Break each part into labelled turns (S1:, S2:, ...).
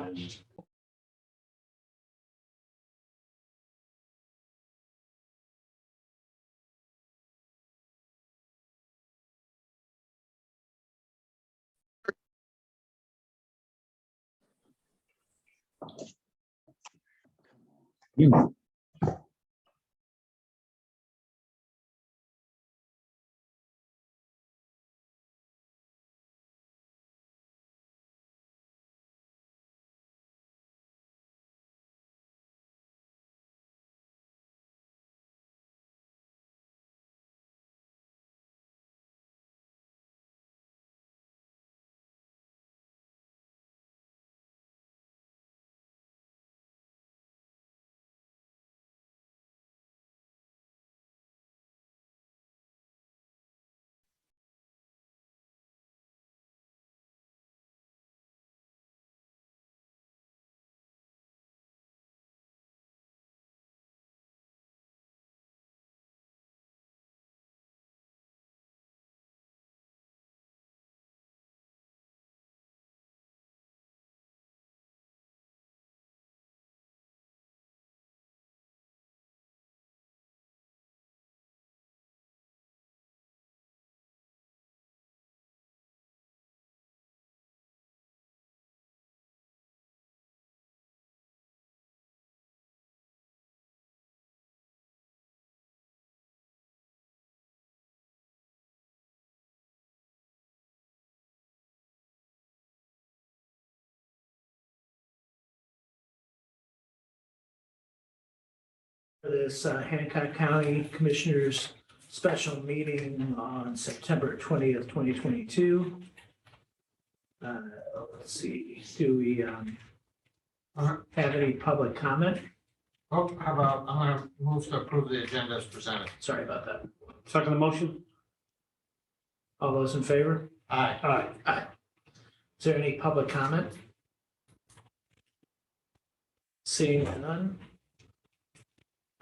S1: and
S2: for this uh, Hancock County Commissioners Special Meeting on September twentieth, twenty twenty-two. Uh, let's see, do we, um,
S3: Uh,
S2: have any public comment?
S3: Oh, how about, I'm gonna move to approve the agenda as presented.
S2: Sorry about that.
S4: Second the motion?
S2: All those in favor?
S3: Aye.
S4: Aye.
S2: Is there any public comment? Seeing none?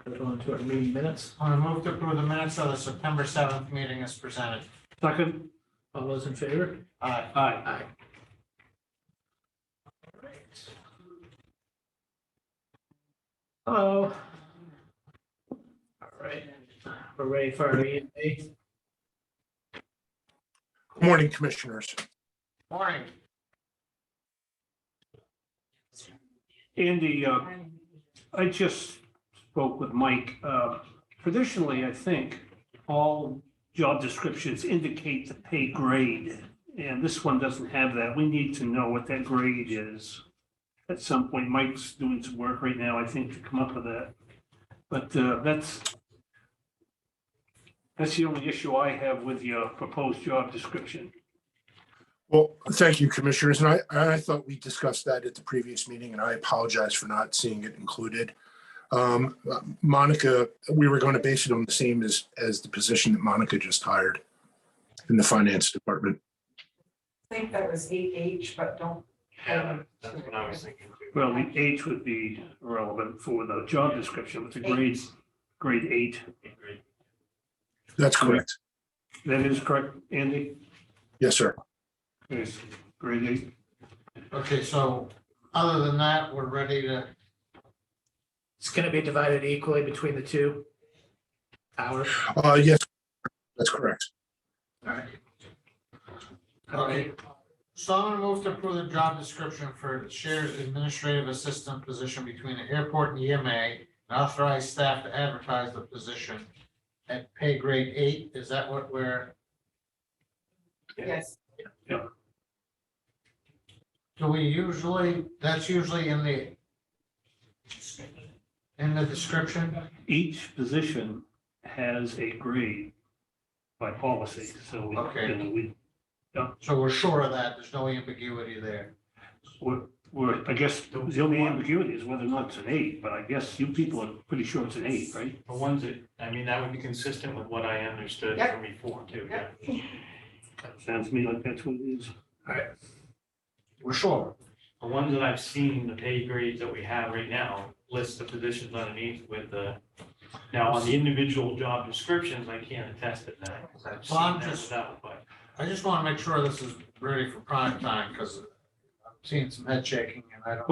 S2: Go on to our meeting minutes.
S3: I'm gonna move to approve the minutes of the September seventh meeting as presented.
S4: Second?
S2: All those in favor?
S3: Aye.
S4: Aye.
S2: Aye. Hello. All right, we're ready for our EMA.
S5: Morning, Commissioners.
S3: Morning.
S4: Andy, uh, I just spoke with Mike. Uh, Traditionally, I think all job descriptions indicate the pay grade. And this one doesn't have that. We need to know what that grade is. At some point, Mike's doing some work right now, I think, to come up with that. But uh, that's that's the only issue I have with your proposed job description.
S5: Well, thank you, Commissioners. And I, I thought we discussed that at the previous meeting and I apologize for not seeing it included. Um, Monica, we were going to base it on the same as, as the position that Monica just hired in the Finance Department.
S6: I think that was eight H, but don't.
S1: Yeah, that's what I was thinking. too.
S4: Well, the age would be relevant for the job description with the grades, grade eight.
S5: That's correct.
S4: That is correct, Andy?
S5: Yes, sir.
S4: Yes, grade eight.
S3: Okay, so other than that, we're ready to,
S2: It's gonna be divided equally between the two. Hours,
S5: Uh, yes, that's correct.
S2: all right. All
S3: okay.
S2: right,
S3: So I'm gonna move to approve the job description for shared administrative assistant position between the airport and EMA and authorize staff to advertise the position at pay grade eight. Is that what we're,
S6: Yes,
S3: do we usually, that's usually in the in the description?
S4: Each position has a grade by policy, so we,
S3: Okay.
S4: and we,
S3: So we're sure of that, there's no ambiguity there.
S4: we're, we're, I guess, the only ambiguity is whether or not it's an eight, but I guess you people are pretty sure it's an eight, right?
S1: The ones that, I mean, that would be consistent with what I understood
S6: Yep.
S1: from before too.
S6: Yep.
S4: Sounds to me like that's what it is.
S3: We're sure.
S1: The ones that I've seen, the pay grades that we have right now, list the positions underneath with the, now on the individual job descriptions, I can't attest to that. 'cause I've
S3: Well, I'm
S1: seen that
S3: just-
S1: without, but
S3: I just want to make sure this is ready for prime time because I'm seeing some head shaking and I don't.